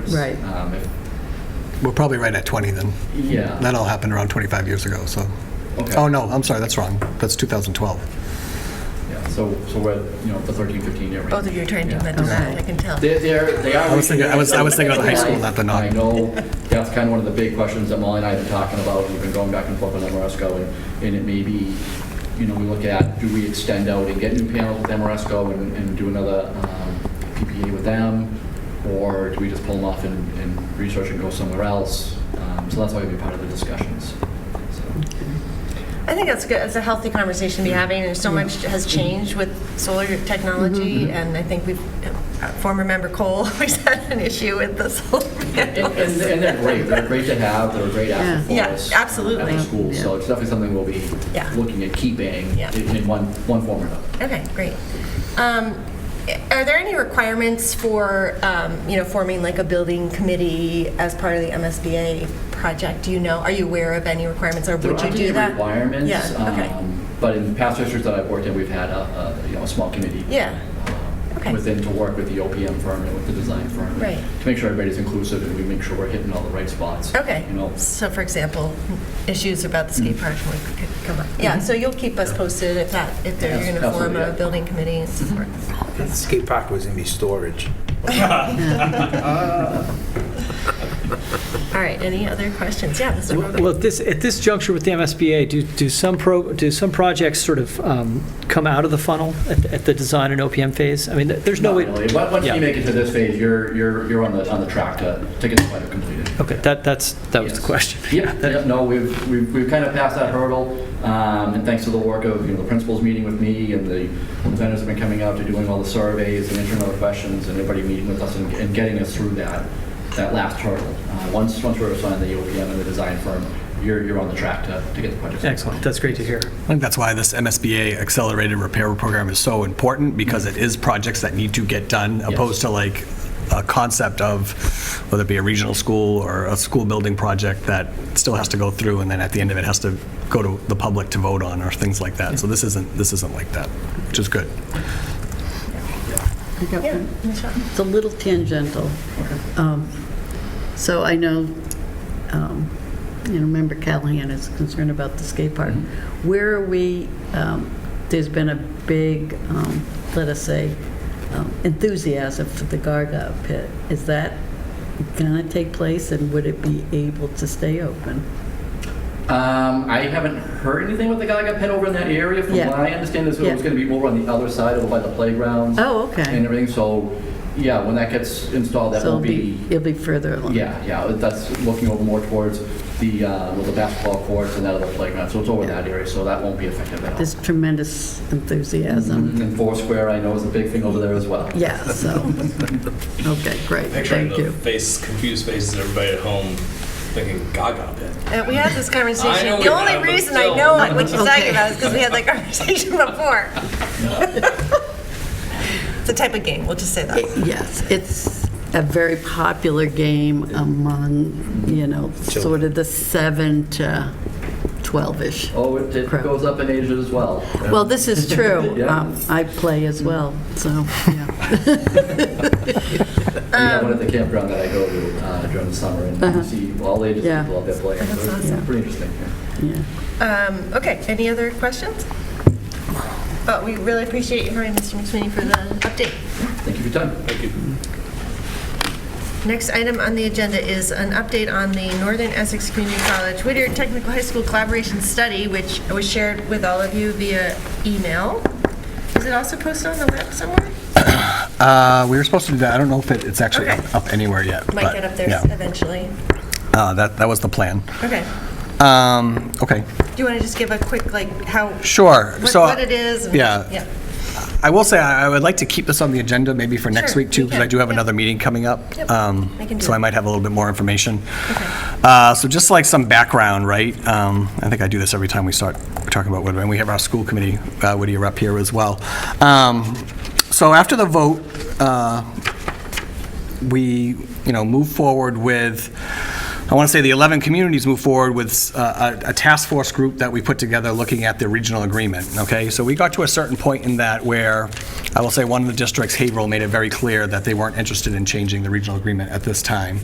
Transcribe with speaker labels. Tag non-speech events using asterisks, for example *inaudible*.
Speaker 1: years.
Speaker 2: Right.
Speaker 1: Um, if-
Speaker 3: We're probably right at 20 then.
Speaker 1: Yeah.
Speaker 3: That all happened around 25 years ago, so.
Speaker 1: Okay.
Speaker 3: Oh, no, I'm sorry, that's wrong. That's 2012.
Speaker 1: Yeah, so, so we're, at, you know, the 13, 15 year range.
Speaker 4: Both of Oh, you are trying to do
Speaker 1: Yeah.
Speaker 4: mental math, I can tell.
Speaker 1: They're, they're, they are.
Speaker 3: I was thinking- I was- I was thinking of the high school, not the non-
Speaker 1: I know, that's kind of one of the big questions that Molly and I have been talking about, we've been going back and forth with Amoresco, and, and it may be, you know, we look at, do we extend out and get new panels with Amoresco and, and do another um, PPA with them? Or do we just pull them off and, and research and go somewhere else? Um, So that's why we'd be part of the discussions, so.
Speaker 4: I think that's good, it's a healthy conversation to be having, and so much has changed with solar technology, and I think we've, our former member Cole, *laughs* always had an issue with the solar
Speaker 1: And, and-
Speaker 4: panels.
Speaker 1: and they're great, they're great to have, they're a great asset
Speaker 4: Yeah.
Speaker 1: for us. uh,
Speaker 4: Yeah, absolutely.
Speaker 1: At the school, so it's definitely something we'll be
Speaker 4: Yeah.
Speaker 1: looking at keeping
Speaker 4: Yeah.
Speaker 1: in in one, one form or another.
Speaker 4: Okay, great. Um, Are there any requirements for, um, you know, forming like a building committee as part of the MSBA project? Do you know, are you aware of any requirements, or would you do that?
Speaker 1: There aren't any requirements.
Speaker 4: Yeah, okay.
Speaker 1: um, But in past districts that I've worked in, we've had a, a, you know, a small committee.
Speaker 4: Yeah.
Speaker 1: um,
Speaker 4: Okay.
Speaker 1: Within to work with the OPM firm and with the design firm.
Speaker 4: Right.
Speaker 1: To make sure everybody's inclusive and we make sure we're hitting all the right spots.
Speaker 4: Okay,
Speaker 1: You know,
Speaker 4: so for example, issues about the skate park would could come up. Yeah, so you'll keep us posted if that, if they're
Speaker 1: Yes,
Speaker 4: going to form
Speaker 1: absolutely,
Speaker 4: a
Speaker 1: yeah.
Speaker 4: building committee and support.
Speaker 5: Skate park was gonna be storage.
Speaker 4: All right, any other questions? Yeah, Mr. Rogan.
Speaker 6: Well, at this, at this juncture with the MSBA, do, do some pro, do some projects sort of um, come out of the funnel at, at the design and OPM phase? I mean, there's no
Speaker 1: not
Speaker 6: way.
Speaker 1: really. Once once
Speaker 6: Yeah.
Speaker 1: you make it to this phase, you're, you're, you're on the, on the track to, to get the project completed.
Speaker 6: Okay, that, that's, that was the
Speaker 1: Yes.
Speaker 6: question.
Speaker 1: Yeah, yeah, no, we've, we've, we've kind of passed that hurdle, um, and thanks to the work of, you know, the principals meeting with me, and the vendors have been coming out to doing all the surveys and answering all the questions, and everybody meeting with us and, and getting us through that, that last hurdle. Uh, once, once we're assigned the OPM and the design firm, you're, you're on the track to, to get the project.
Speaker 6: Excellent, that's great to hear.
Speaker 3: I think that's why this MSBA Accelerated Repair Program is so important, because it is projects that need to get done, opposed to like a concept of, whether it be a regional school or a school building project that still has to go through, and then at the end of it has to go to the public to vote on, or things like that. So this isn't, this isn't like that, which is good.
Speaker 2: I got
Speaker 4: Yeah,
Speaker 2: one.
Speaker 4: Michelle?
Speaker 2: It's a little tangential. Um, So I know, um, you know, Member Callahan is concerned about the skate park.
Speaker 1: Mm-hmm.
Speaker 2: Where are we, um, there's been a big, um, let us say, um, enthusiasm for the Gaga pit. Is that going to take place and would it be able to stay open?
Speaker 1: Um, I haven't heard anything with the Gaga Pit over in that area. From
Speaker 2: Yeah.
Speaker 1: what I understand, is it was
Speaker 2: Yeah.
Speaker 1: going to be over on the other side, over by the playgrounds.
Speaker 2: Oh, okay.
Speaker 1: And everything. So, yeah, when that gets installed, that
Speaker 2: So
Speaker 1: will
Speaker 2: it'll It'll be further along?
Speaker 1: Yeah, yeah, that's looking over more towards the, uh, well, the basketball courts and that other playground, so it's over that area, so that won't be affected at all. Mm-hmm,
Speaker 2: There's tremendous enthusiasm.
Speaker 1: And Foursquare, I know, is a big thing over there as well.
Speaker 2: Yeah,
Speaker 1: *laughs*
Speaker 2: so, okay, great,
Speaker 7: Picturing
Speaker 2: thank
Speaker 7: the
Speaker 2: you.
Speaker 7: face, confused faces of everybody at home thinking Gaga Pit.
Speaker 4: Uh, We had this
Speaker 7: I know
Speaker 4: conversation.
Speaker 7: we
Speaker 4: The only
Speaker 7: have, but
Speaker 4: reason I
Speaker 7: still.
Speaker 4: know what you're talking
Speaker 2: Okay.
Speaker 4: about is because we had that conversation before. It's a type of game, we'll just say that.
Speaker 2: Yes, it's a very popular game among, you know, sort of the 7 to 12-ish.
Speaker 1: Oh, it it
Speaker 2: Correct.
Speaker 1: goes up in Asia as well.
Speaker 2: Well, this is true.
Speaker 1: Yeah.
Speaker 2: Um, I play as well, so, yeah.
Speaker 1: We have
Speaker 2: Um,
Speaker 1: one at the campground that I go to uh, during the summer, and you see all ages
Speaker 2: Uh-huh. Yeah.
Speaker 1: people out there playing, so it's
Speaker 2: awesome.
Speaker 1: pretty interesting. yeah.
Speaker 2: yeah.
Speaker 4: Um, Okay, any other questions? But we really appreciate you hearing Mr. McSweeney for the update.
Speaker 1: Thank you for your time.
Speaker 7: Thank you.
Speaker 4: Next item on the agenda is an update on the Northern Essex Community College Whittier Technical High School Collaboration Study, which was shared with all of you via email. Is it also posted on the web somewhere?
Speaker 3: Uh, We were supposed to do that, I don't know if it- it's actually up up anywhere yet.
Speaker 4: Might
Speaker 3: but,
Speaker 4: get up there
Speaker 3: yeah.
Speaker 4: eventually.
Speaker 3: Uh, That, that was the plan.
Speaker 4: Okay.
Speaker 3: Um, Okay.
Speaker 4: Do you want to just give a quick, like, how,
Speaker 3: Sure.
Speaker 4: what
Speaker 3: So,
Speaker 4: what it is? and-
Speaker 3: yeah.
Speaker 4: Yeah.
Speaker 3: I will say, I I would like to keep this on the agenda maybe for next
Speaker 4: Sure,
Speaker 3: week too,
Speaker 4: we
Speaker 3: because I
Speaker 4: can,
Speaker 3: do have
Speaker 4: yeah.
Speaker 3: another meeting coming up.
Speaker 4: Yep,
Speaker 3: Um,
Speaker 4: I can do
Speaker 3: So I
Speaker 4: that.
Speaker 3: might have a little bit more information.
Speaker 4: Okay.
Speaker 3: Uh, So just like some background, right? um, I think I do this every time we start talking about Whittier, and we have our school committee, uh, Whittier up here as well. Um, So after the vote, uh, we, you know, move forward with, I want to say the 11 communities move forward with uh, a a task force group that we put together looking at the regional agreement, okay? So we got to a certain point in that where, I will say, one of the districts, Haverhill, made it very clear that they weren't interested in changing the regional agreement at this time.